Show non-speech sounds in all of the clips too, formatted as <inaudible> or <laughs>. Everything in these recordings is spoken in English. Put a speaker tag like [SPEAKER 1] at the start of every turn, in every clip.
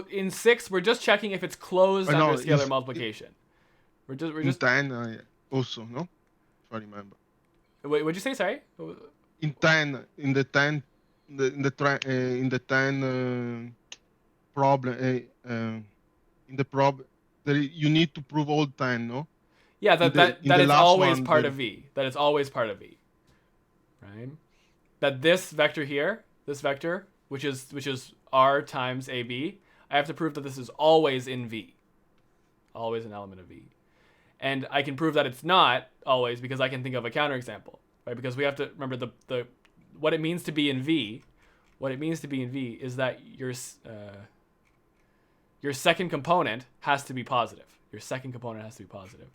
[SPEAKER 1] in six, we're just checking if it's closed
[SPEAKER 2] Uh, no,
[SPEAKER 1] under scalar
[SPEAKER 2] it's-
[SPEAKER 1] multiplication. we're just we're
[SPEAKER 2] In
[SPEAKER 1] just.
[SPEAKER 2] ten, I also no, if I remember.
[SPEAKER 1] Wait, what'd you say? Sorry.
[SPEAKER 2] In ten, in the ten, in the in the, tra- uh, in the ten uh, problem, uh, uh, in the problem, you need to prove all ten, no?
[SPEAKER 1] Yeah, that
[SPEAKER 2] the-
[SPEAKER 1] that,
[SPEAKER 2] in
[SPEAKER 1] that
[SPEAKER 2] the
[SPEAKER 1] it's
[SPEAKER 2] last
[SPEAKER 1] always
[SPEAKER 2] one,
[SPEAKER 1] part
[SPEAKER 2] the-
[SPEAKER 1] of v. That it's always part of v. Right. That this vector here, this vector, which is which is r times a b, I have to prove that this is always in v. Always an element of v. And I can prove that it's not always because I can think of a counterexample, right? Because we have to remember the the what it means to be in v. What it means to be in v is that your s- uh, your second component has to be positive. Your second component has to be positive.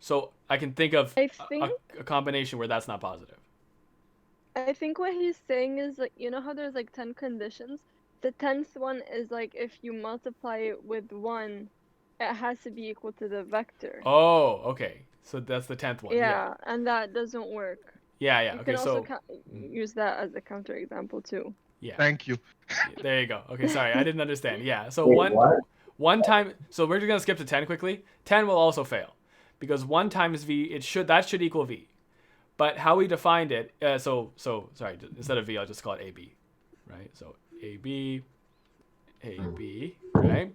[SPEAKER 1] So I can think of
[SPEAKER 3] I
[SPEAKER 1] a-
[SPEAKER 3] think
[SPEAKER 1] a, a combination where that's not positive.
[SPEAKER 3] I think what he's saying is like you know how there's like ten conditions. The tenth one is like if you multiply it with one, it has to be equal to the vector.
[SPEAKER 1] Oh, okay. So that's the tenth one.
[SPEAKER 3] yeah, and that doesn't work.
[SPEAKER 1] Yeah, yeah.
[SPEAKER 3] you
[SPEAKER 1] Okay,
[SPEAKER 3] can also
[SPEAKER 1] so
[SPEAKER 3] cou-
[SPEAKER 1] Mm.
[SPEAKER 3] use that as a counterexample too.
[SPEAKER 1] yeah,
[SPEAKER 2] Thank you. Uh,
[SPEAKER 1] <laughs> there you go. Okay, sorry, I didn't understand. Yeah, so
[SPEAKER 4] Wait,
[SPEAKER 1] one
[SPEAKER 4] what?
[SPEAKER 1] one time. So we're just gonna skip to ten quickly. Ten will also fail because one times v it should that should equal v, but how we defined it. Uh, so so sorry. j- Instead of v, I'll just call it ab, right? So ab,
[SPEAKER 4] Hmm.
[SPEAKER 1] ab, right?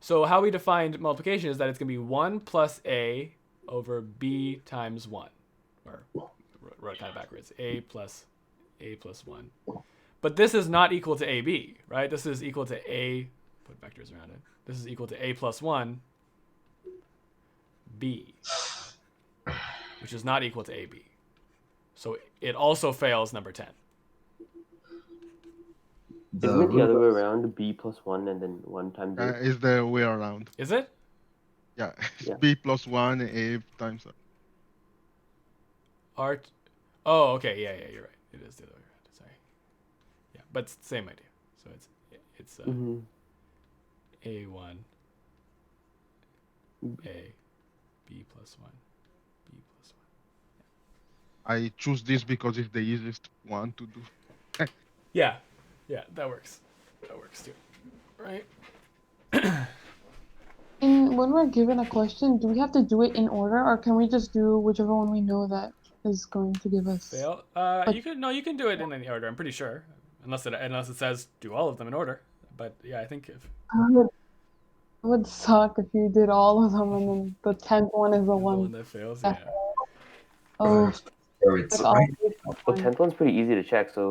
[SPEAKER 1] So how we defined multiplication is that it's gonna be one plus a over b times one, or wrote- wrote it kind of backwards. A plus a plus one. But this is not equal to ab, right? This is equal to a. Put vectors around it. This is equal to a plus one. B, which is not equal to ab. So it also fails number ten.
[SPEAKER 4] The
[SPEAKER 5] Isn't it the
[SPEAKER 4] root
[SPEAKER 5] other
[SPEAKER 4] of-
[SPEAKER 5] way around? B plus one and then one times
[SPEAKER 2] Uh,
[SPEAKER 5] A.
[SPEAKER 2] is the way around.
[SPEAKER 1] Is it?
[SPEAKER 2] Yeah, <laughs> it's
[SPEAKER 5] Yeah.
[SPEAKER 2] b plus one a times. uh,
[SPEAKER 1] Art. Oh, okay. Yeah, yeah. You're right. It is the other way around. Sorry. Yeah, but it's the same idea. So it's it's uh,
[SPEAKER 5] Mhm.
[SPEAKER 1] a one. A, b plus one, b plus one.
[SPEAKER 2] I choose this because it's the easiest one to do.
[SPEAKER 1] Yeah, yeah. That works. That works too. Right.
[SPEAKER 6] And when we're given a question, do we have to do it in order, or can we just do whichever one we know that is going to give us?
[SPEAKER 1] Fail. Uh,
[SPEAKER 6] But-
[SPEAKER 1] you can no, you can do it in any order. I'm pretty sure, unless it unless it says do all of them in order. But yeah, I think if
[SPEAKER 6] It would- it would suck if you did all of them and then the tenth one is the
[SPEAKER 1] the one
[SPEAKER 6] one.
[SPEAKER 1] that fails, yeah.
[SPEAKER 6] Oh,
[SPEAKER 4] Oh, it's
[SPEAKER 6] that's
[SPEAKER 4] all right.
[SPEAKER 5] The tenth one's pretty easy to check, so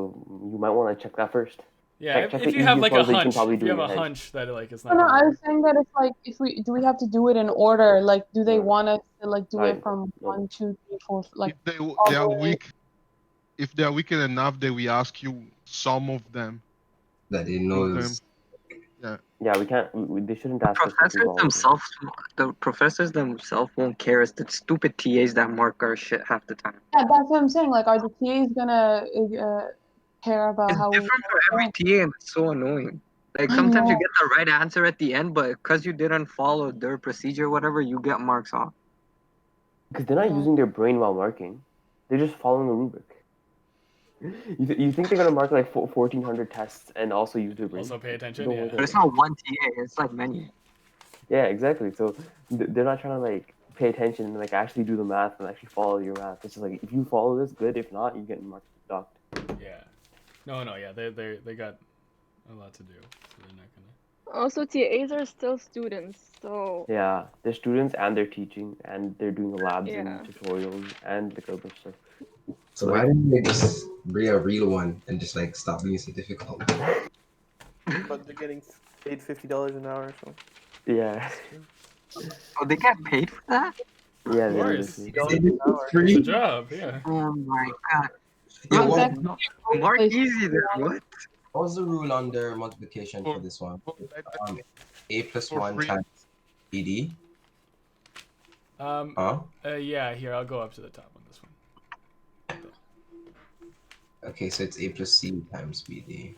[SPEAKER 5] you might want to check that first.
[SPEAKER 1] Yeah,
[SPEAKER 5] Check-
[SPEAKER 1] if,
[SPEAKER 5] check
[SPEAKER 1] if
[SPEAKER 5] the
[SPEAKER 1] you have
[SPEAKER 5] easiest
[SPEAKER 1] like a
[SPEAKER 5] ones that you can
[SPEAKER 1] hunch,
[SPEAKER 5] probably
[SPEAKER 1] if
[SPEAKER 5] do
[SPEAKER 1] you
[SPEAKER 5] in
[SPEAKER 1] have a
[SPEAKER 5] your head.
[SPEAKER 1] hunch that like it's
[SPEAKER 6] No,
[SPEAKER 1] not.
[SPEAKER 6] no, I
[SPEAKER 1] gonna
[SPEAKER 6] was saying that it's like if we do we have to do it in order? Like, do they want us to like do
[SPEAKER 5] I-
[SPEAKER 6] it from one, two, three, four? Like,
[SPEAKER 2] if they, w- they are weak, if they are weak enough, they will ask you some of them.
[SPEAKER 4] that he knows.
[SPEAKER 5] Yeah, we can't. We, we- they shouldn't ask us. to do
[SPEAKER 7] professors
[SPEAKER 5] all of them.
[SPEAKER 7] themselves the professors themselves won't care it's the stupid tas that mark our shit half the time
[SPEAKER 6] yeah, that's what I'm saying. Like, are the TAs gonna uh, care about
[SPEAKER 7] it's
[SPEAKER 6] how we?
[SPEAKER 7] different for every ta and it's so annoying like
[SPEAKER 6] I
[SPEAKER 7] sometimes you
[SPEAKER 6] know.
[SPEAKER 7] get the right answer at the end but because you didn't follow their procedure whatever you get marks off
[SPEAKER 5] Because they're not
[SPEAKER 6] Yeah.
[SPEAKER 5] using their brain while marking. They're just following the rubric. You, th- you think they're going to mark like fo- 1,400 tests and also use their brain?
[SPEAKER 1] also pay attention.
[SPEAKER 5] Don't worry
[SPEAKER 1] Yeah.
[SPEAKER 7] but
[SPEAKER 5] about
[SPEAKER 7] it's not one ta it's like many
[SPEAKER 5] Yeah, exactly. So th- they're not trying to like pay attention and like actually do the math and actually follow your math. It's just like if you follow this, good. If not, you get marked docked.
[SPEAKER 1] Yeah. No, no, yeah. They they they got a lot to do, so they're not gonna.
[SPEAKER 3] Also, TAs are still students, so
[SPEAKER 5] Yeah, they're students and they're teaching and they're doing labs
[SPEAKER 3] Yeah.
[SPEAKER 5] and tutorials and the kind of stuff.
[SPEAKER 4] So why didn't they just bring a real one and just like stop being so difficult?
[SPEAKER 8] but they're getting paid fifty dollars an hour. So
[SPEAKER 5] Yeah, <laughs>
[SPEAKER 7] oh they get paid for that
[SPEAKER 5] yeah.
[SPEAKER 1] Of
[SPEAKER 5] they do
[SPEAKER 1] course.
[SPEAKER 5] this.
[SPEAKER 4] They did it free?
[SPEAKER 1] Good job. Yeah.
[SPEAKER 7] oh my god
[SPEAKER 4] Yeah,
[SPEAKER 7] Look,
[SPEAKER 4] what,
[SPEAKER 7] mark easy then what
[SPEAKER 4] what was the rule on their multiplication for this one?
[SPEAKER 2] For that-
[SPEAKER 4] Um, a plus
[SPEAKER 2] For
[SPEAKER 4] one
[SPEAKER 2] free.
[SPEAKER 4] times BD,
[SPEAKER 1] Um.
[SPEAKER 4] huh?
[SPEAKER 1] Uh, yeah. Here, I'll go up to the top on this one.
[SPEAKER 4] Okay, so it's A plus C times BD.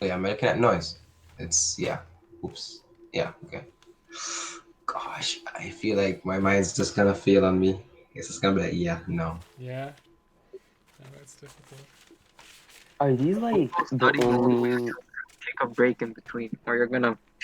[SPEAKER 4] Oh, yeah, I'm looking at noise. It's, yeah. Oops. Yeah, okay. Gosh, I feel like my mind's just gonna fail on me. It's just gonna be like, yeah, no.
[SPEAKER 1] Yeah. Yeah, that's difficult.
[SPEAKER 5] Are these like the
[SPEAKER 7] Study.
[SPEAKER 5] only?
[SPEAKER 7] take a break in between or you're gonna